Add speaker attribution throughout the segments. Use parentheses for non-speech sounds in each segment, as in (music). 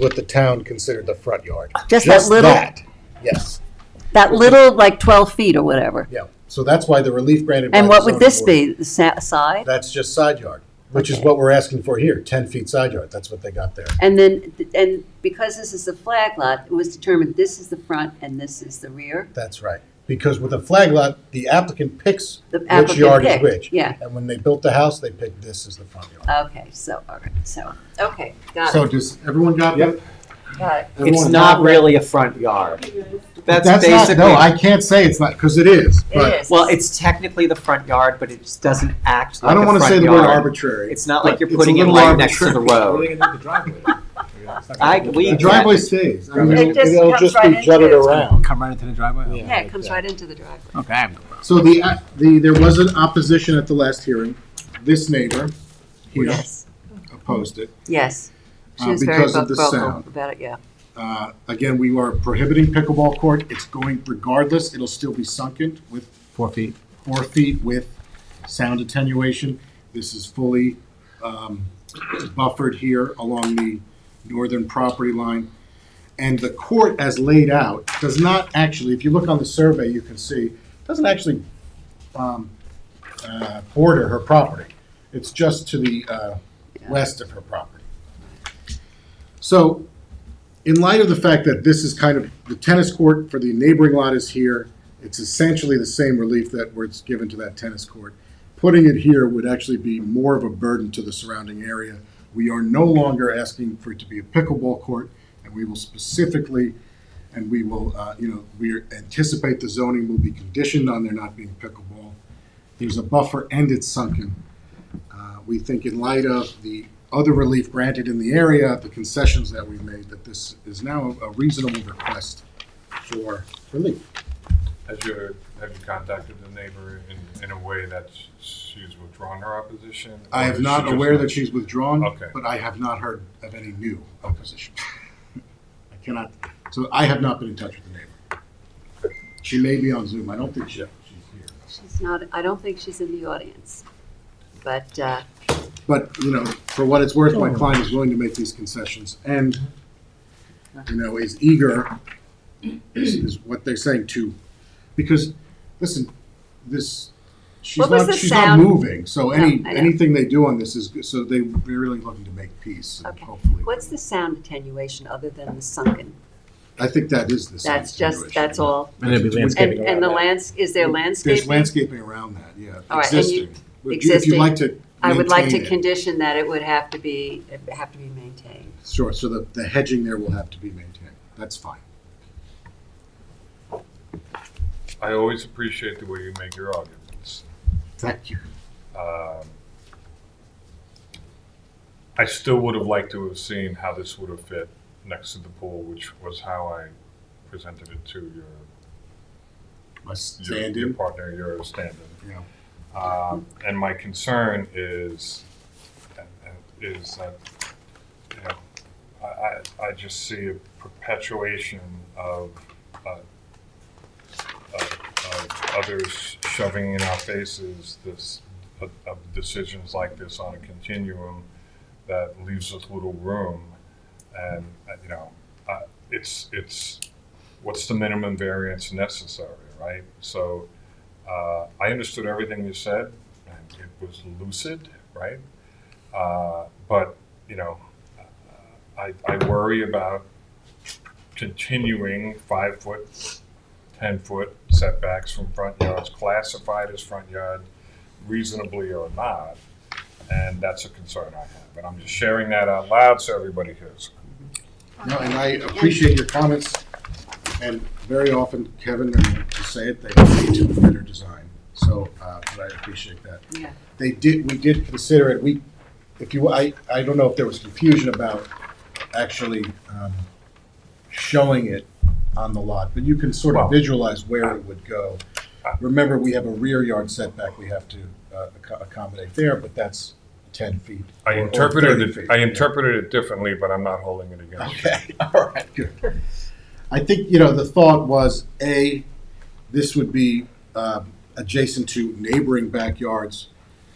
Speaker 1: what the town considered the front yard.
Speaker 2: Just that little-
Speaker 1: that, Yes,
Speaker 2: That little, like 12 feet or whatever.
Speaker 1: yeah. So that's why the relief granted. by
Speaker 2: And
Speaker 1: the
Speaker 2: what would
Speaker 1: zoning
Speaker 2: this
Speaker 1: board-
Speaker 2: be, the sa- side?
Speaker 1: That's just side yard, which is
Speaker 2: Okay.
Speaker 1: what we're asking for here, ten feet side yard. That's what they got there.
Speaker 2: And then, and because this is the flag lot, it was determined this is the front and this is the rear?
Speaker 1: That's right. Because with a flag lot, the applicant picks
Speaker 2: The
Speaker 1: which
Speaker 2: applicant
Speaker 1: yard is
Speaker 2: picked,
Speaker 1: which.
Speaker 2: yeah.
Speaker 1: And when they built the house, they picked this as the front yard.
Speaker 2: Okay, so, all right, so, okay, got
Speaker 1: So
Speaker 2: it,
Speaker 1: does everyone got that?
Speaker 2: got it.
Speaker 3: It's
Speaker 1: Everyone-
Speaker 3: not really a front yard. That's
Speaker 1: not-
Speaker 3: basically.
Speaker 1: No, I can't say it's not, because it is,
Speaker 2: It
Speaker 1: but
Speaker 2: is.
Speaker 3: Well, it's technically the front yard, but it just doesn't act like
Speaker 1: I don't
Speaker 3: a
Speaker 1: want to
Speaker 3: front
Speaker 1: say the word
Speaker 3: yard.
Speaker 1: arbitrary.
Speaker 3: It's not like
Speaker 1: but
Speaker 3: you're
Speaker 1: it's a
Speaker 3: putting it
Speaker 1: little
Speaker 3: right next to the
Speaker 1: arbitrary.
Speaker 3: road. I- we-
Speaker 1: The driveway stays. I mean,
Speaker 2: It
Speaker 1: it'll-
Speaker 2: just
Speaker 1: it'll
Speaker 2: comes
Speaker 1: just
Speaker 2: right
Speaker 1: be
Speaker 2: into
Speaker 1: jutted
Speaker 2: it.
Speaker 1: around.
Speaker 4: Come right into the driveway?
Speaker 2: Yeah, it comes right into the driveway.
Speaker 4: Okay, I'm
Speaker 1: So the, uh, the, there was an opposition at the last hearing. This neighbor here
Speaker 2: Yes,
Speaker 1: opposed it.
Speaker 2: yes. She
Speaker 1: Uh,
Speaker 2: was very
Speaker 1: because of
Speaker 2: vocal
Speaker 1: the sound.
Speaker 2: about it, yeah.
Speaker 1: Uh, Again, we are prohibiting pickleball court. It's going regardless. It'll still be sunken with
Speaker 4: four feet.
Speaker 1: four feet with sound attenuation. This is fully um, buffered here along the northern property line. And the court, as laid out, does not actually, if you look on the survey, you can see, doesn't actually um, uh, border her property. It's just to the uh, west of her property. So in light of the fact that this is kind of, the tennis court for the neighboring lot is here, it's essentially the same relief that was given to that tennis court. Putting it here would actually be more of a burden to the surrounding area. We are no longer asking for it to be a pickleball court, and we will specifically, and we will, uh, you know, we anticipate the zoning will be conditioned on there not being pickleball. There's a buffer and it's sunken. Uh, We think in light of the other relief granted in the area, the concessions that we've made, that this is now a reasonable request for relief.
Speaker 5: Has you, have you contacted the neighbor in, in a way that sh- she's withdrawn her opposition?
Speaker 1: I
Speaker 5: Or
Speaker 1: am
Speaker 5: is she
Speaker 1: not
Speaker 5: just
Speaker 1: aware that she's withdrawn,
Speaker 5: Okay.
Speaker 1: but I have not heard of any new opposition. (laughs) I cannot, so I have not been in touch with the neighbor. She may be on Zoom, I don't think she, she's here.
Speaker 2: She's not, I don't think she's in the audience, but, uh,
Speaker 1: But, you know, for what it's worth, my client is willing to make these concessions and, you know, is eager, is, is what they're saying to, because, listen, this, she's
Speaker 2: What was
Speaker 1: not,
Speaker 2: the
Speaker 1: she's not
Speaker 2: sound?
Speaker 1: moving, so any,
Speaker 2: I know.
Speaker 1: anything they do on this is, good. so they, they're really looking to make peace and
Speaker 2: Okay.
Speaker 1: hopefully.
Speaker 2: what's the sound attenuation other than the sunken?
Speaker 1: I think that is the same
Speaker 2: That's just,
Speaker 1: situation.
Speaker 2: that's all.
Speaker 4: And it'd be
Speaker 2: And,
Speaker 4: landscaping
Speaker 2: and the lands, is there landscaping?
Speaker 1: There's landscaping around that, yeah.
Speaker 2: All right, and you-
Speaker 1: Existing. Would you- If you'd like to
Speaker 2: I would like to
Speaker 1: maintain it.
Speaker 2: condition that it would have to be, it would have to be maintained.
Speaker 1: Sure, so the, the hedging there will have to be maintained. That's fine.
Speaker 5: I always appreciate the way you make your arguments.
Speaker 1: Thank you.
Speaker 5: Um, I still would have liked to have seen how this would have fit next to the pool, which was how I presented it to your,
Speaker 1: My
Speaker 5: your-
Speaker 1: stand
Speaker 5: your
Speaker 1: in.
Speaker 5: partner, your stand-in.
Speaker 1: Yeah.
Speaker 5: Um, And my concern is, is that, you know, I, I, I just see a perpetuation of, uh, of, of others shoving in our faces this, of of decisions like this on a continuum that leaves us little room. And, uh, you know, I- it's, it's, what's the minimum variance necessary, right? So uh, I understood everything you said, and it was lucid, right? Uh, but you know, uh, I, I worry about continuing five foot, ten foot setbacks from front yards, classified as front yard, reasonably or not, and that's a concern I have. And I'm just sharing that out loud so everybody hears.
Speaker 1: No, and I appreciate your comments, and very often, Kevin, and to say it, they lead to a better design, so, uh, but I appreciate that.
Speaker 2: Yeah.
Speaker 1: They did, we did consider it, we, if you, I, I don't know if there was confusion about actually, um, showing it on the lot, but you can sort
Speaker 5: Well-
Speaker 1: of visualize where it would go. Remember, we have a rear yard setback we have to, uh, acco- accommodate there, but that's ten feet.
Speaker 5: I
Speaker 1: or- or
Speaker 5: interpreted
Speaker 1: 30
Speaker 5: it.
Speaker 1: feet.
Speaker 5: I
Speaker 1: Yeah.
Speaker 5: interpreted it differently, but I'm not holding it against
Speaker 1: (laughs)
Speaker 5: you.
Speaker 1: Okay, all right, good. I think, you know, the thought was, A, this would be um, adjacent to neighboring backyards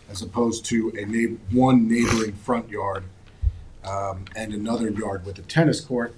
Speaker 1: as opposed to a neigh, one neighboring front yard. um, and another yard with a tennis court.